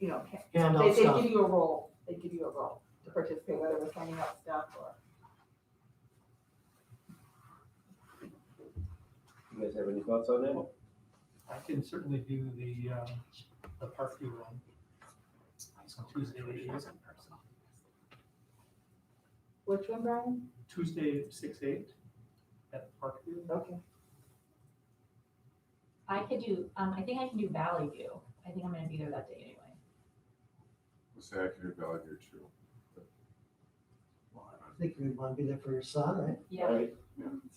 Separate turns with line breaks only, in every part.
you know, ca-
hand
they,
out
they
stuff.
give you a role, they give you a role to participate, whether it was handing out stuff or.
You guys have any thoughts on that?
I can certainly do the, um, the Parkview one. On Tuesday, the eighth.
Which one, Brian?
Tuesday, six eight, at Parkview.
Okay.
I could do, um, I think I can do Valley View. I think I'm gonna be there that day anyway.
We'll say I can do Valley View too.
I think you'd want to be there for your son, right?
Yeah,
Alright,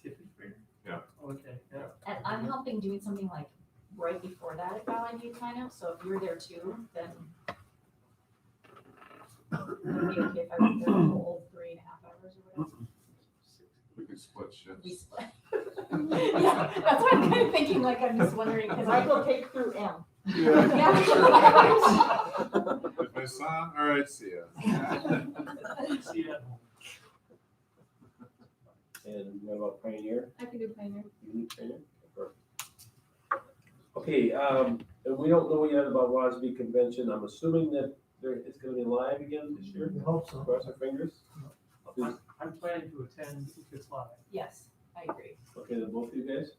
See if it's free.
Yeah.
Okay, yeah.
and I'm helping doing something like right before that at Valley View kind of, so if you're there too, then. Would it be okay if I was there the whole three and a half hours or whatever?
We can split
We
shifts.
split. Yeah, that's what I'm kind of thinking, like, I'm just wondering, because I go.
Michael, take through M.
Yeah,
Yeah. With my son, all right, see ya.
See you at home.
And what about Pioneer?
I can do planner.
You need Pioneer? Okay. Okay, um, and we don't know yet about WASB convention. I'm assuming that there, it's gonna be live again this year.
We
Mm-hmm.
hope so.
Cross our fingers.
I'm- I'm planning to attend if it's live.
Yes, I agree.
Okay, then both of you guys?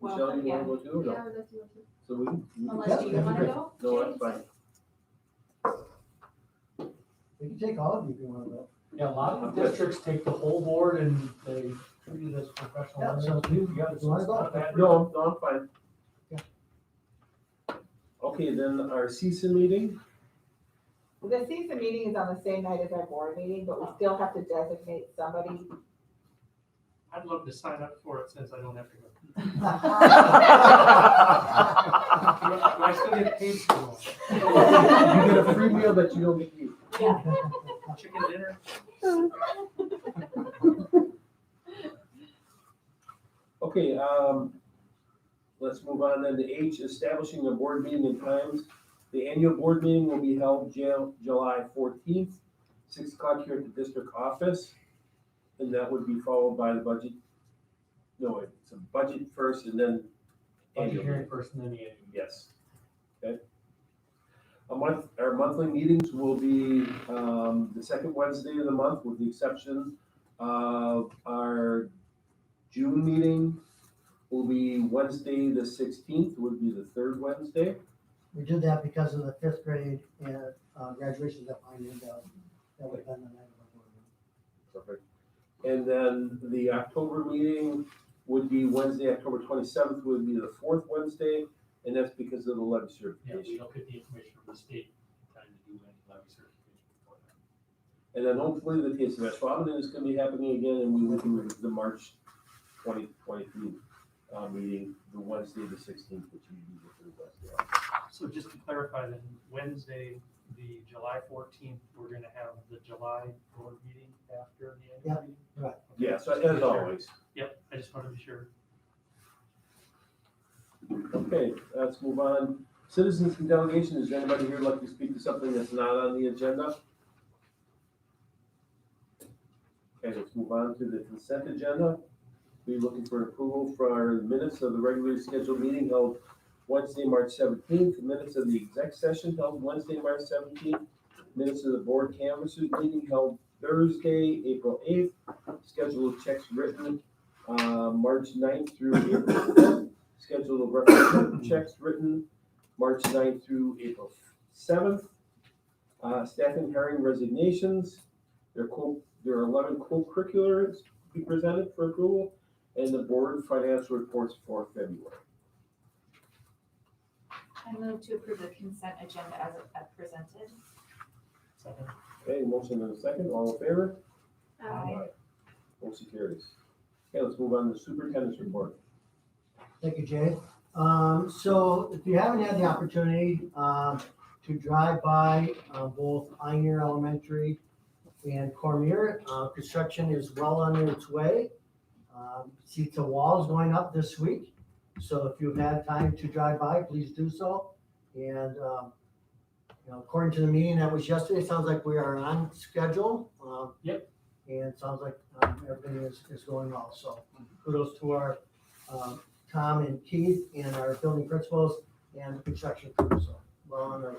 Well,
Michelle, you wanna
yeah.
go too or no?
Yeah, that's what you-
So we, you-
Unless you wanna go?
no,
James?
that's fine.
We can take all of you if you want to go.
Yeah, a lot of districts take the whole board and they treat it as
Yeah,
professional.
so you- you
Yeah, it's
wanna go?
not bad.
No, no, I'm fine.
Yeah.
Okay, then our CISA meeting,
The CISA meeting is on the same night as our board meeting, but we still have to designate somebody.
I'd love to sign up for it since I don't have to go. Do I do I still get paid for it?
you get a free meal that you don't get to eat.
Yeah,
Chicken dinner?
Okay, um, let's move on then to H, establishing the board meeting and times. The annual board meeting will be held Ju- July fourteenth, six o'clock here at the district office. And that would be followed by the budget, no, it's a budget first and then
Budget
annual.
hearing first and then the annual.
Yes. Okay. A month, our monthly meetings will be um, the second Wednesday of the month, with the exception of our June meeting will be Wednesday, the sixteenth, would be the third Wednesday.
We did that because of the fifth grade and uh, graduation that I knew about. That would have been the night of our board meeting.
Perfect. And then the October meeting would be Wednesday, October twenty-seventh, would be the fourth Wednesday, and that's because of the levy
Yeah, we
certification.
don't get the information from the state in time to do any levy certification before that.
And then hopefully the TSMS Robin is gonna be happening again, and we will do the March twenty twenty-three uh, meeting, the Wednesday, the sixteenth, which you do for the Wednesday.
So just to clarify, then Wednesday, the July fourteenth, we're gonna have the July board meeting after the
Yeah,
annual meeting?
right.
Okay,
Yeah, so
just to be
as
sure.
always,
Yep, I just wanted to be sure.
okay, let's move on. Citizens and delegation, is there anybody here like to speak to something that's not on the agenda? Okay, let's move on to the consent agenda. We're looking for approval for our minutes of the regularly scheduled meeting held Wednesday, March seventeenth, minutes of the exec session held Wednesday, March seventeenth, minutes of the board canvassers meeting held Thursday, April eighth, schedule of checks written, uh, March 9th through April fifth, schedule of referendum checks written, March 9th through April seventh. Uh, staffing hiring resignations, there are co, there are eleven co-curriculars to be presented for approval, and the board financial reports for February.
I move to approve the consent agenda as, as presented.
Second.
Okay, motion and a second, all in favor?
Aye.
Motion carries. Okay, let's move on to superintendent's report.
Thank you, Jay. Um, so if you haven't had the opportunity, um, to drive by, uh, both Ioneer Elementary and Cormier, uh, construction is well on its way. Um, see the walls going up this week, so if you've had time to drive by, please do so. And, um, you know, according to the meeting that was yesterday, it sounds like we are on schedule. Um,
Yep.
And it sounds like, um, everything is, is going well, so kudos to our, um, Tom and Keith and our building principals and construction crew, so well on our way.